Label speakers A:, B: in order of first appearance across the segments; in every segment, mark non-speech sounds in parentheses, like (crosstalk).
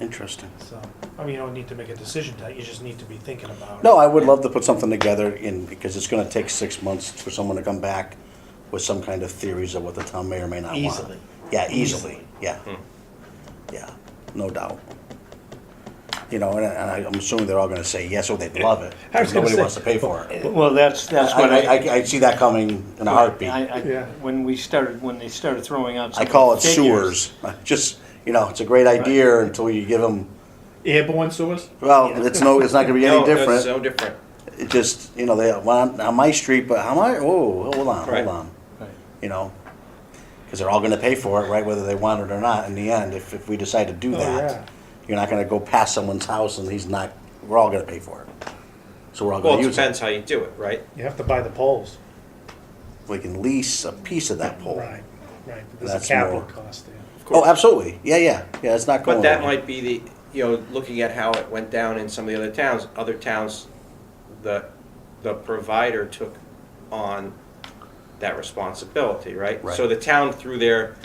A: Interesting.
B: So, I mean, you don't need to make a decision tonight, you just need to be thinking about it.
A: No, I would love to put something together in, because it's gonna take six months for someone to come back with some kind of theories of what the town may or may not want.
B: Easily.
A: Yeah, easily,
B: Easily.
A: yeah.
C: Hmm.
A: Yeah, no doubt. You know, and, I- and I- I'm assuming they're all gonna say yes, or they'd love it.
C: I was gonna
A: Nobody
C: say-
A: wants to pay for it.
C: Well, that's, that's
A: I,
C: what
A: I,
C: I.
A: I- I see that coming in a heartbeat.
C: I-
A: I
C: I-
B: Yeah.
C: When we started, when they started throwing out. some
A: call it
C: figures,
A: sewers, (laughs) just, you know, it's a great idea until you give them,
B: Airborne sewers?
A: well, it's no, it's not gonna be
C: (laughs)
A: any
D: No,
A: different.
D: It's no different.
A: It just, you know, they, well, on, on my street, but how am I, oh, hold on,
D: Right.
A: hold on.
C: Right.
A: You know, because they're all going to pay for it, right, whether they want it or not in the end, if, if we decide to do
B: Oh,
A: that.
B: yeah.
A: You're not going to go past someone's house and he's not, we're all going to pay for it. So we're all
D: Well,
A: going
D: it
A: to use
D: depends
A: it.
D: how you do it, right?
B: You have to buy the poles.
A: We can lease a piece of that pole.
B: Right, right, but there's a
A: Oh. That's
B: capital
A: more.
B: cost there.
D: Of
A: Oh,
D: course.
A: absolutely. Yeah, yeah. Yeah, it's not going
D: But that
A: away.
D: might be the, you know, looking at how it went down in some of the other towns, other towns, the, the provider took on that responsibility, right?
A: Right.
D: So the town through their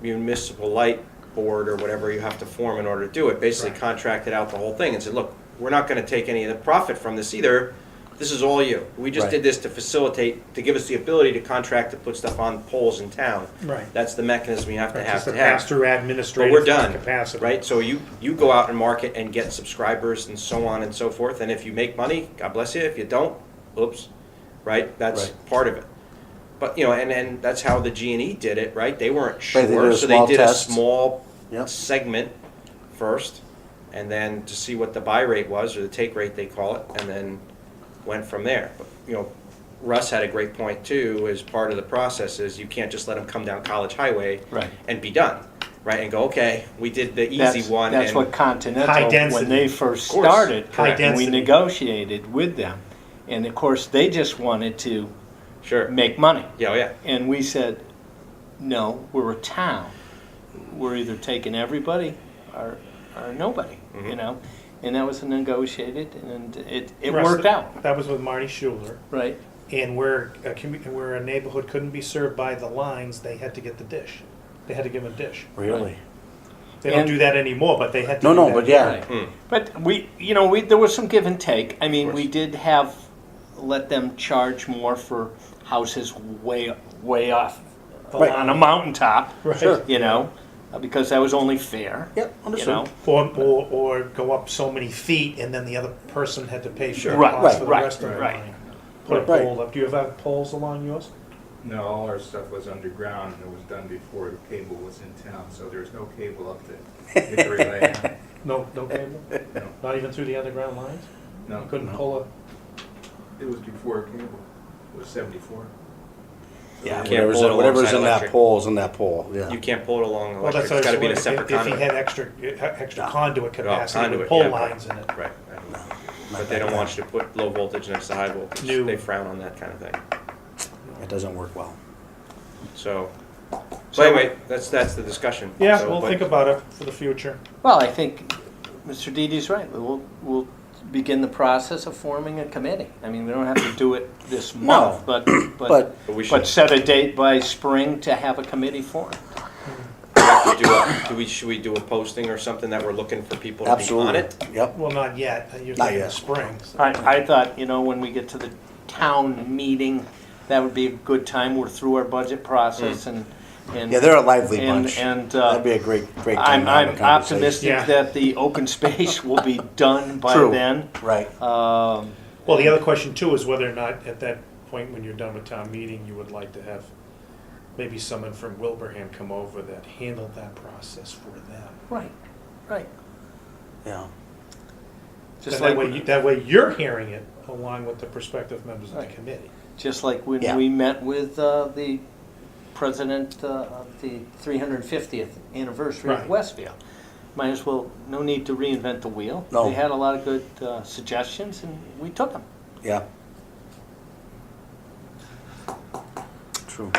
D: municipal light board or whatever you have to form in order to do it, basically
B: Right.
D: contracted out the whole thing and said, look, we're not gonna take any of the profit from this either. This is all you. We just
A: Right.
D: did this to facilitate, to give us the ability to contract to put stuff on poles in town.
B: Right.
D: That's the mechanism you have to
B: It's
D: have
B: just a
D: to have.
B: pass-through
D: But
B: administrative
D: we're done,
B: capacity.
D: right? So you, you go out and market and get subscribers and so on and so forth, and if you make money, God bless you, if you don't, oops, right? That's
A: Right.
D: part of it. But, you know, and, and that's how the G and E did it, right? They weren't
A: Right, they did
D: sure,
A: a
D: so they
A: small
D: did a
A: test.
D: small
A: Yep.
D: segment first, and then to see what the buy rate was, or the take rate they call it, and then went from there. But, you know, Russ had a great point too, as part of the process is you can't just let them come down College Highway
C: Right.
D: and be done, right? And go, okay, we did the easy
C: That's,
D: one.
C: that's
D: and
C: what
B: High
C: Continental,
B: density.
C: when they first
D: Of course.
C: started,
B: High
C: and we
B: density.
C: negotiated with them. And of course, they just wanted to
D: Sure.
C: make money.
D: Yeah, oh, yeah.
C: And we said, no, we're a town. We're either taking everybody or, or nobody,
D: Mm-hmm.
C: you know? And that was a negotiated and it, it
B: Russ,
C: worked out,
B: That was with Marty Schuler,
C: right?
B: and where a commu, where a neighborhood couldn't be served by the lines, they had to get the dish. They had to give them a dish.
A: Really?
B: They don't
C: And-
B: do that anymore, but they had to
A: No,
B: do
A: no,
B: that.
A: but yeah.
C: Right. But we, you know, we, there was some give and take. I mean,
D: Hmm. Of
C: we
D: course.
C: did have, let them charge more for houses way, way off,
A: Right.
C: on a mountaintop,
B: (laughs) Right.
A: Sure.
C: you know? uh, Because that was only fair, you
A: Yep, understood.
C: know?
B: Or, or, or go up so many feet and then the other person had to pay for the
C: Right,
B: cost for the
C: right,
B: rest of the
C: right.
B: line. Put a
A: Right.
B: pole up. Do you have poles along yours?
E: No, all our stuff was underground and it was done before the cable was in town, so there's no cable up to Hickory Lane.
B: No,
D: (laughs)
B: no cable?
E: No,
B: Not even through the underground lines? You
E: no,
B: couldn't pull a,
E: it was before cable, it was seventefour.
A: Yeah,
D: can't
A: whatever's,
D: pull it
A: in, whatever's
D: alongside
A: in that
D: electric.
A: pole is in that pole, yeah.
D: You can't pull it along
B: well,
D: electric.
B: that's.
D: It's got to be
B: what
D: in
B: I
D: a
B: was
D: separate
B: wondering, if- If he
D: conduit.
B: had extra, eh, extra conduit capacity
D: conduit,
B: with pole
D: yeah.
B: lines in it.
D: Right. But they don't want you to put low voltage next to high voltage.
B: New.
D: They frown on that kind of thing.
A: It doesn't work well.
D: So, so anyway, that's, that's the discussion.
B: Yeah,
D: So,
B: we'll
D: but-
B: think about it for the future.
C: Well, I think Mr. Didi's right. We'll, we'll begin the process of forming a committee. I mean, we don't have to do it this
A: (clears throat)
C: month, but, but,
A: But-
D: But we should.
C: but set a date by spring to have a committee formed.
D: We do a- do we, should we do a posting or something that we're looking for people to be on
A: Absolutely.
D: it?
A: Yep.
B: Well, not yet. You're
A: Not
B: thinking
A: yet.
B: of spring. so-
C: I, I thought, you know, when we get to the town meeting, that would be a good time. We're through our budget process and, and.
A: Hmm. Yeah, they're a lively
C: and-
A: bunch.
C: And,
A: That'd
C: uh,
A: be a great, great time
C: I'm,
A: to have a
C: I'm
A: conversation.
C: optimistic
B: Yeah.
C: that the open space will
A: (laughs)
C: be done by
A: True.
C: then.
A: Right.
C: Um,
B: Well, the other question too is whether or not at that point when you're done with town meeting, you would like to have maybe someone from Wilbraham come over that handled that process for them.
C: Right, right.
A: Yeah.
C: Just
B: that
C: like,
B: way, you, that way you're hearing it along with the prospective members of the
C: Right.
B: committee.
C: just like when
A: Yeah.
C: we met with uh, the president uh, of the 350th anniversary
B: Right.
C: of Westfield. Might as well, no need to reinvent the wheel.
A: No.
C: They had a lot of good uh, suggestions, and we took them.
A: Yeah. True.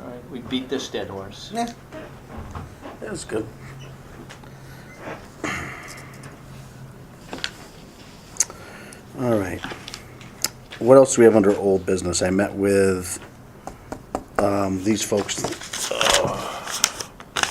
C: All right, we beat this dead horse.
A: Yeah. That was good. All right. What else do we have under old business? I met with um, these folks